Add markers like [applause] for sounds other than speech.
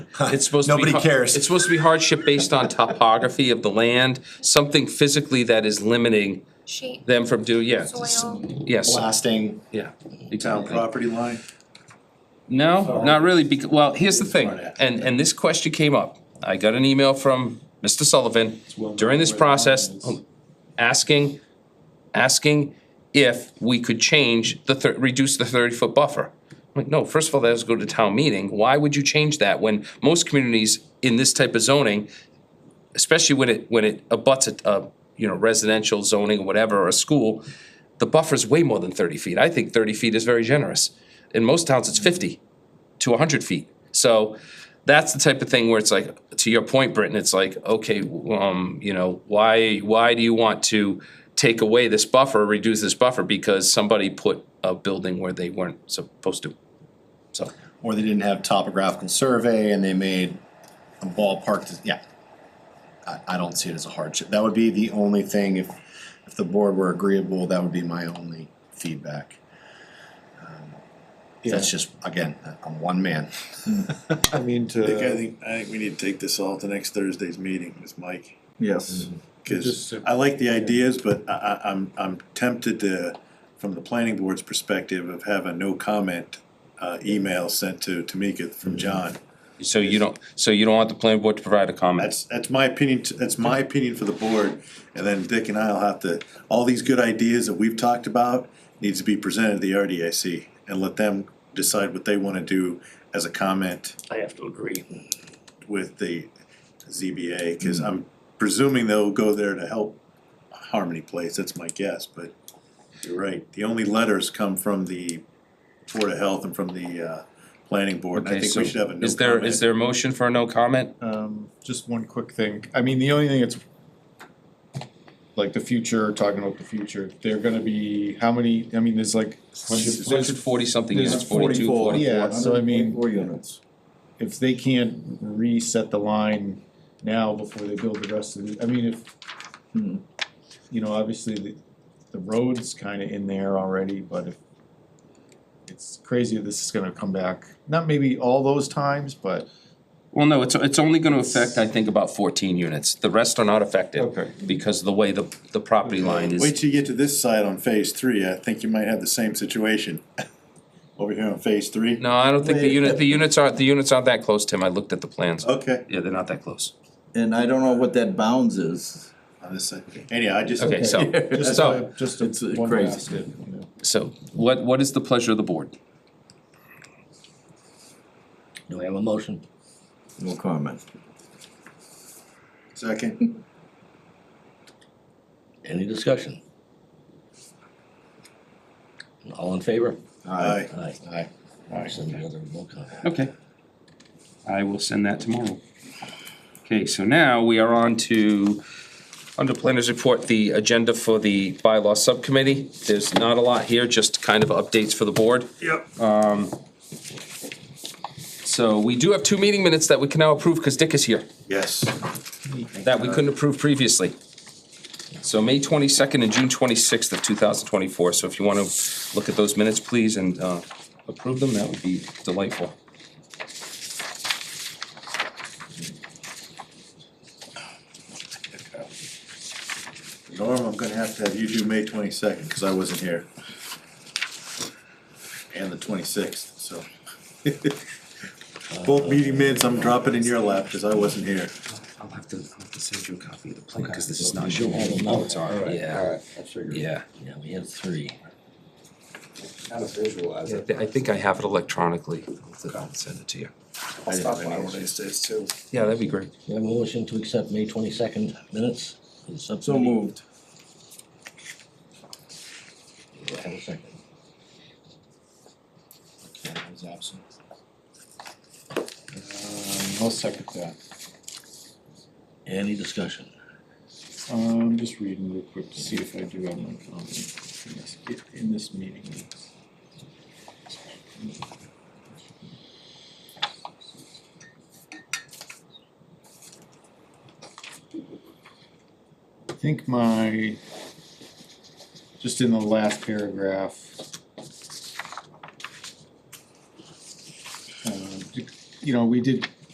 It's supposed to be. Nobody har- cares. It's supposed to be hardship based on topography of the land, something physically that is limiting Shape, them from doing, yeah. soil. Yes, blasting. yeah. town exactly. property line. No, not really, because, well, here's the thing, Sorry. and, and this question came up. I got an email from Mr. Sullivan well known during this where the line process, is. asking, asking if we could change the, thir- reduce the thirty-foot buffer. I'm like, no, first of all, that has to go to town meeting. Why would you change that when most communities in this type of zoning, especially when it, when it abuts a, a, you know, residential zoning or whatever, or a school, the buffer's way more than thirty feet. I think thirty feet is very generous. In most towns, it's fifty to hundred feet. So that's the type of thing where it's like, to your point, Britton, it's like, okay, um, you know, why, why do you want to take away this buffer, reduce this buffer because somebody put a building where they weren't supposed to? So, Or they didn't have topographical survey and they made a ballpark, yeah. I, I don't see it as a hardship. That would be the only thing, if, if the board were agreeable, that would be my only feedback. Um, That's just, again, I'm one man. I mean, I think, I to, uh, think, I think we need to take this all to next Thursday's meeting with Mike. yes, Cause Just a- I like the ideas, but I, I, I'm, I'm tempted to, from the planning board's perspective of have a no comment uh, email sent to Tamika Mm-hmm. from John. so you don't, so you don't want the planning board to provide a comment? That's, that's my opinion, t- that's my opinion for the board, and then Dick and I'll have to, all these good ideas that we've talked about needs to be presented to the RDIC and let them decide what they wanna do as a comment I have to agree. with the ZBA, Hmm. cause I'm presuming they'll go there to help Harmony Place, that's my guess, but you're right, the only letters come from the Board of Health and from the, uh, Planning Board, and I Okay, think so we should have a no Is there, is comment. there a motion for a no comment? um, just one quick thing, I mean, the only thing that's like the future, talking about the future, they're gonna be, how many, I mean, there's like. Hundred forty something There's units, forty-two, 44, forty. Yeah, so I mean, Four units. if they can't reset the line now before they build the rest of the, I mean, if, Hmm. you know, obviously the, the road's kinda in there already, but if it's crazy, this is gonna come back, not maybe all those times, but. Well, no, it's, it's only gonna affect, I think, about fourteen units. The rest are not affected. Okay. Because of the way the, the property line is. Wait till you get to this side on phase three, I think you might have the same situation. [laughs] Over here on phase three? No, I don't think the unit, the units aren't, the units aren't that close, Tim, I looked at the plans. Okay, Yeah, they're not that close. And I don't know what that bounds is. on this side, anyhow, I just. Okay, [laughs] so, Just so, a, just a It's, uh, one crazy. basket, you know. so what, what is the pleasure of the board? Do we have a motion? No comment. Second, Any discussion? All in favor? aye. Aye. Aye. Aye. Send the other no comment. Okay. I will send that tomorrow. Okay, so now we are on to, under planners report, the agenda for the bylaw subcommittee. There's not a lot here, just kind of updates for the board. Um, Yep. So we do have two meeting minutes that we can now approve because Dick is here. Yes, that we couldn't approve previously. So May twenty-second and June twenty-sixth of two thousand twenty-four, so if you wanna look at those minutes, please, and, uh, approve them, that would be delightful. Norm, I'm gonna have to have you do May twenty-second, cause I wasn't here. And the twenty-sixth, so. [laughs] Both meeting minutes, I'm dropping in your lap, cause I wasn't here. I'll have to, I'll have to send you a copy of the plan, cause this is not You your. had Oh, another. it's on, yeah, yeah. Yeah, we have three. Kind of visualize I thi- I think I have it electronically, I'll I'll send it to you. I didn't have any one of these days too. Yeah, that'd be great. We have a motion to accept May twenty-second minutes for the So subcommittee. moved. Do I Have a second. I was absent. Um, I'll second that. Any discussion? Um, just reading real quick to see if I do have my comment in this, in this meeting. minutes. I think my, just in the last paragraph. um, uh, You know, we did